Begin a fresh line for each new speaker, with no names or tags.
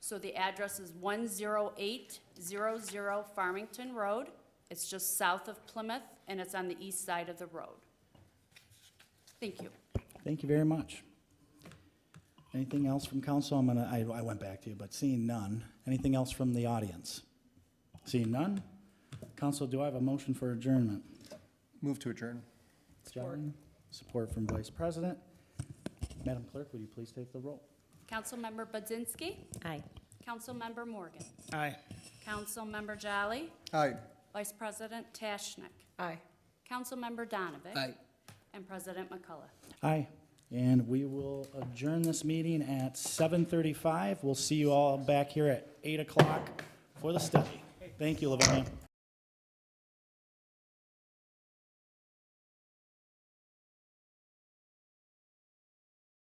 So the address is 10800 Farmington Road. It's just south of Plymouth, and it's on the east side of the road. Thank you.
Thank you very much. Anything else from council? I'm gonna, I, I went back to you, but seeing none. Anything else from the audience? Seeing none? Council, do I have a motion for adjournment?
Move to adjourn.
Support. Support from Vice President. Madam Clerk, would you please take the roll?
Councilmember Budzinski,
Aye.
Councilmember Morgan,
Aye.
Councilmember Jolly,
Aye.
Vice President Tashnik,
Aye.
Councilmember Donovan.
Aye.
And President McCullough.
Aye. And we will adjourn this meeting at seven thirty-five. We'll see you all back here at eight o'clock for the study. Thank you, Livonia.